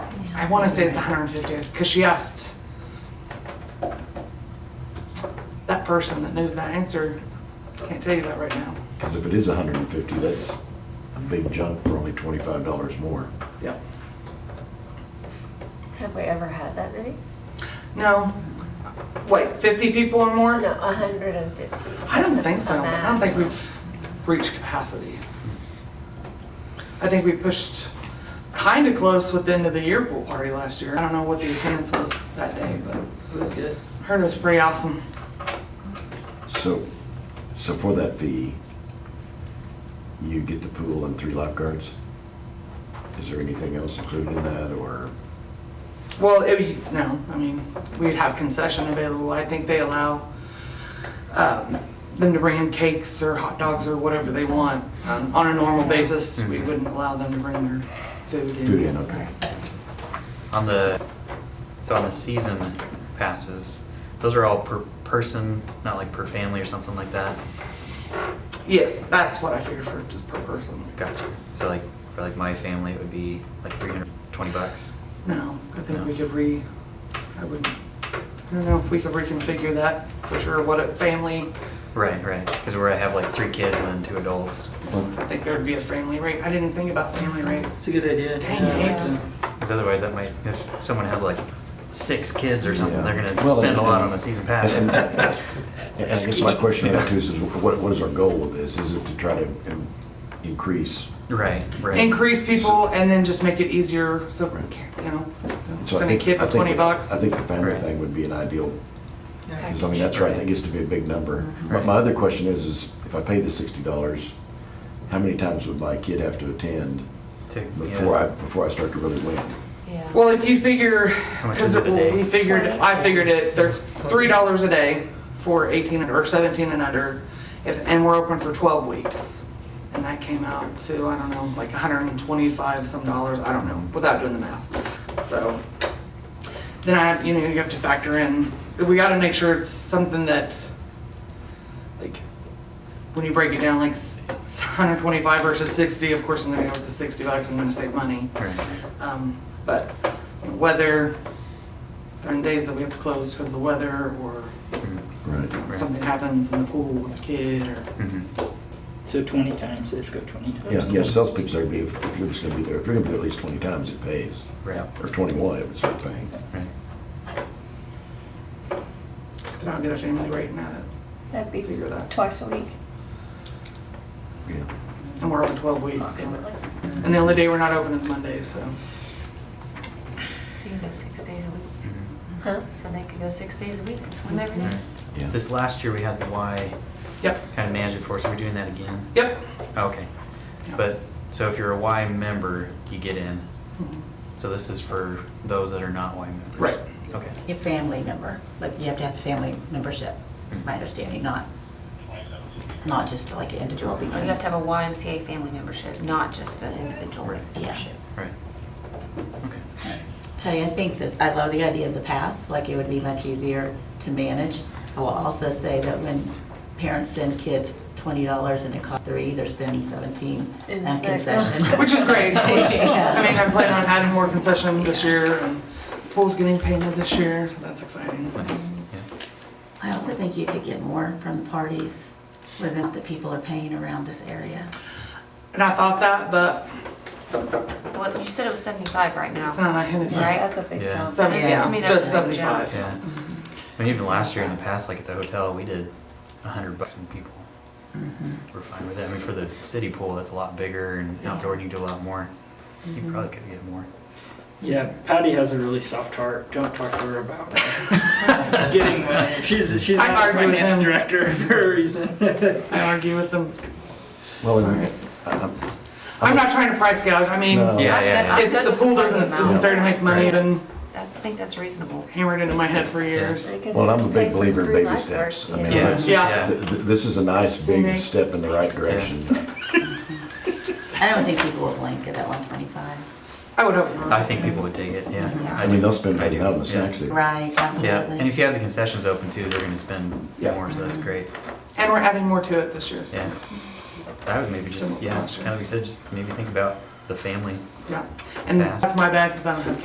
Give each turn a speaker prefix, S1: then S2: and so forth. S1: I want to say it's 150th because she asked that person that knows that answer. Can't tell you that right now.
S2: Because if it is hundred and fifty, that's a big jump for only twenty-five dollars more.
S1: Yep.
S3: Have we ever had that many?
S1: No. Wait, 50 people or more?
S3: Oh, No, 150.
S1: I don't think so.
S3: A
S1: I don't think
S3: max.
S1: we've reached capacity. I think we pushed kind of close with the end of the year pool party last year. I don't know what the attendance was that day, but
S4: It was good.
S1: heard it was pretty awesome.
S2: So, so for that fee, you get the pool and three lifeguards? Is there anything else included in that, or?
S1: Well, it, would- no, I mean, we'd have concession available. I think they allow um, them to bring in cakes or hot dogs or whatever they want. Um, On a normal basis, we wouldn't allow them to bring their food in.
S2: Mm-hmm. Food in, okay.
S5: On the, so on the season passes, those are all per person, not like per family or something like that?
S1: Yes, that's what I figured for just per person.
S5: Gotcha. So like, for like my family, it would be like three hundred twenty bucks?
S1: No, I think we could re, I wouldn't, I don't know if we could reconfigure that for sure, what a family,
S5: Right, right, because where I have like three kids and then two adults.
S1: I think there'd be a family rate. I didn't think about family rates.
S4: It's a good idea.
S1: Dang
S4: Yeah.
S1: it.
S5: Because otherwise that might, if someone has like six kids or something,
S2: Yeah.
S5: they're gonna
S2: Well,
S5: spend a lot
S2: and-
S5: on a season pass.
S2: And and I guess my question about too is, is what, what is our goal with this? Is it to try to um, increase?
S5: Right, right.
S1: Increase people and then just make it easier, so, you know,
S2: So I
S1: send a
S2: think-
S1: kid
S2: I
S1: for
S2: think
S1: twenty
S2: the-
S1: bucks.
S2: I think the family
S5: Right.
S2: thing would be an ideal
S4: Yeah.
S2: Because I mean, that's right, that gets to be a big number. My,
S5: Mm-hmm. Right.
S2: my other question is, is if I pay the sixty dollars, how many times would my kid have to attend
S5: To-
S2: before I,
S5: yeah.
S2: before I start to really win?
S1: Well, if you figure,
S5: much
S1: because
S5: is it a day?
S1: we figured, I figured it, there's three dollars a day for eighteen and- or seventeen and under, if, and we're open for twelve weeks. And that came out to, I don't know, like hundred and twenty-five some dollars, I don't know, without doing the math. So, then I, you know, you have to factor in, we gotta make sure it's something that, like, when you break it down, like hundred twenty-five versus sixty, of course, I'm gonna go with the sixty bucks, I'm gonna save money.
S5: Right.
S1: Um, But weather, on days that we have to close because of the weather or
S5: Mhm,
S2: Right.
S1: something happens in the pool with a kid or,
S5: mhm.
S4: So 20 times, let's go 20 times.
S2: Yeah, yeah, sales pitch, there'd be, if if you're just gonna be there, if you're gonna be there at least twenty times, it pays.
S5: Right,
S2: Or twenty-one, it would start paying.
S5: right.
S1: but I'll get a family rate now that,
S3: That'd
S1: figure that.
S3: be twice a week,
S2: Yeah.
S1: and we're open 12 weeks. so-
S3: approximately.
S1: And the only day we're not open is Mondays, so.
S6: She can go six days a
S5: Mhm.
S6: week,
S3: Huh?
S6: so they could go six days a week and swim every day.
S2: Yeah.
S5: Mm-hmm. This last year, we had the Y
S1: Yep,
S5: kind of manage it for us. We're doing that again.
S1: yep.
S5: Okay.
S1: Yeah.
S5: But so if you're a Y member, you get in.
S1: Mhm.
S5: So this is for those that are not Y members.
S1: Right.
S5: Okay.
S7: Your family member, like you have to have a family membership, is my understanding, not, not just like an individual
S6: You have to
S7: because.
S6: have a YMCA family membership, not just an individual membership.
S5: Right. Okay.
S7: Honey, I think that, I love the idea of the pass, like it would be much easier to manage. I will also say that when parents send kids twenty dollars and it costs three, they're spending seventeen
S3: In
S7: on
S3: snacks.
S6: oh,
S7: concessions.
S1: Which is great.
S7: Yeah.
S1: I mean, I plan on adding more concession this year and pool's getting painted this year, so that's exciting.
S5: Nice. Yeah.
S7: I also think you could get more from the parties with the that people are paying around this area.
S1: And I thought that, but
S6: Well, you said it was 75 right now.
S1: it's not, I haven't.
S6: Right.
S3: That's a big
S5: Yeah.
S3: jump.
S1: Seventy,
S7: Yeah, to
S1: yeah,
S6: me that's
S1: just
S6: a big
S1: seventy-five.
S5: Yeah. I mean, even last year in the past, like at the hotel, we did a hundred bucks and people. We're fine with it. I mean, for the city pool, that's a lot bigger and outdoor, you can do a lot more. You probably could get more.
S4: Yeah, Patty has a really soft heart. Don't talk to her about getting money. She's she's
S1: I
S4: not our
S1: argue with
S4: finance
S1: him.
S4: director for a reason.
S1: I argue with them.
S2: Well,
S1: Sorry.
S2: and I- I'm-
S1: I'm not trying to price gouge, I mean,
S2: No.
S5: Yeah,
S6: I'm
S5: yeah,
S6: good-
S5: yeah.
S6: I'm
S1: If
S6: good
S1: the
S6: with
S1: pool
S6: the
S1: doesn't-
S6: amount.
S1: isn't there to make money,
S6: Right.
S1: then-
S6: I think that's reasonable.
S1: hammered into my head for years.
S3: I guess
S2: Well,
S3: we
S2: I'm a
S3: have to
S2: big
S3: pay for
S2: believer in
S3: three
S2: baby
S3: lifeguards,
S2: steps. I mean,
S3: yeah.
S2: that's-
S1: Yeah.
S2: th- th- This is a nice big
S1: Scenic.
S2: step in the right direction.
S7: I don't think people will blink at that one twenty-five.
S1: I would hope not.
S5: I think people would take it. Yeah.
S6: Yeah.
S2: I mean, they'll spend
S5: I
S2: money
S5: do,
S2: out on the
S5: yeah.
S2: snacks. they-
S7: Right, absolutely.
S5: Yeah, and if you have the concessions open too, they're gonna spend
S1: Yeah.
S5: more, so that's great,
S1: And we're adding more to it this year, so,
S5: yeah. I would maybe just, yeah, kind of like you said, just maybe think about the family
S1: yeah. And
S5: Fast.
S1: that's my bad, because I don't have